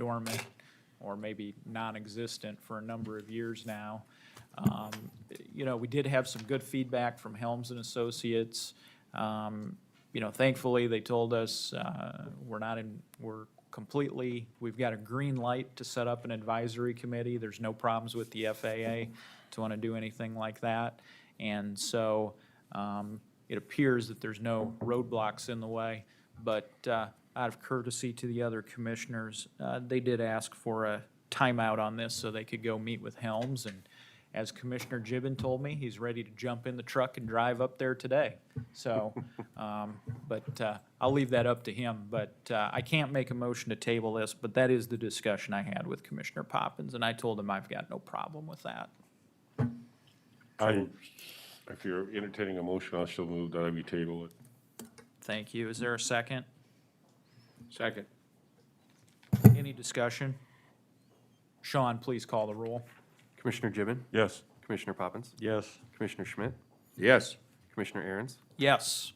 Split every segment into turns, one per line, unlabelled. dormant or maybe non-existent for a number of years now. Um, You know, we did have some good feedback from Helms and Associates. Um, You know, thankfully, they told us uh, we're not in, we're completely, we've got a green light to set up an advisory committee. There's no problems with the FAA to want to do anything like that. And so um, it appears that there's no roadblocks in the way. But uh, out of courtesy to the other commissioners, uh, they did ask for a timeout on this so they could go meet with Helms. And as Commissioner Gibbon told me, he's ready to jump in the truck and drive up there today. So, um, but uh, I'll leave that up to him. But uh, I can't make a motion to table this, but that is the discussion I had with Commissioner Poppins. And I told him I've got no problem with that.
I, if you're entertaining a motion, I shall move that we table it.
Thank you. Is there a second?
Second.
Any discussion? Sean, please call the roll.
Commissioner Gibbon,
Yes.
Commissioner Poppins,
Yes.
Commissioner Schmidt,
Yes.
Commissioner Aaron's.
Yes.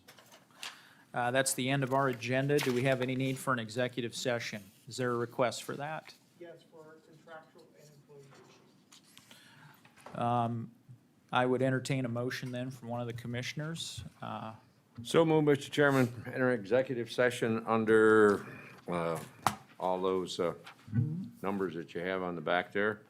Uh, That's the end of our agenda. Do we have any need for an executive session? Is there a request for that?
Yes, for contractual and employee issues.
I would entertain a motion then from one of the commissioners. Uh,
So moved, Mr. Chairman, enter executive session under uh, all those uh, numbers that you have on the back there.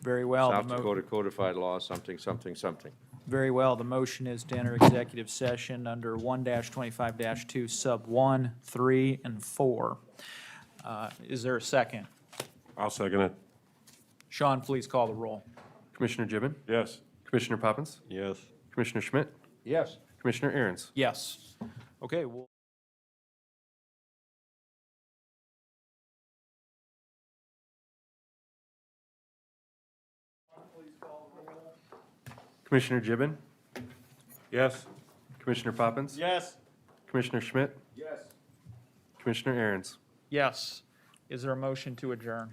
Very well. the
South
mo-
Dakota codified law, something, something, something.
Very well. The motion is to enter executive session under one twenty-five two sub one, three, and four. Uh, Is there a second?
I'll second it.
Sean, please call the roll.
Commissioner Gibbon,
Yes.
Commissioner Poppins,
Yes.
Commissioner Schmidt,
Yes.
Commissioner Aaron's.
Yes. Okay, well.
Commissioner Gibbon,
Yes.
Commissioner Poppins,
Yes.
Commissioner Schmidt,
Yes.
Commissioner Aaron's.
Yes. Is there a motion to adjourn?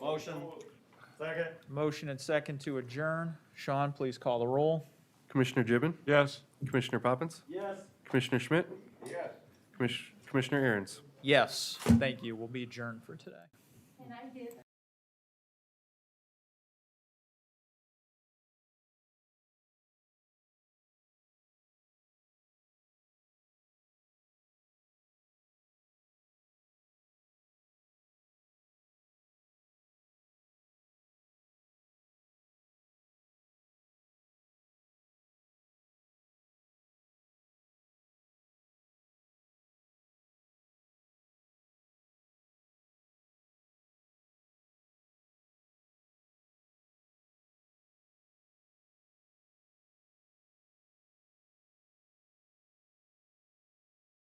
Motion. Second.
Motion and second to adjourn. Sean, please call the roll.
Commissioner Gibbon,
Yes.
Commissioner Poppins,
Yes.
Commissioner Schmidt,
Yes.
Commish- Commissioner Aaron's.
Yes, thank you. We'll be adjourned for today.
And I did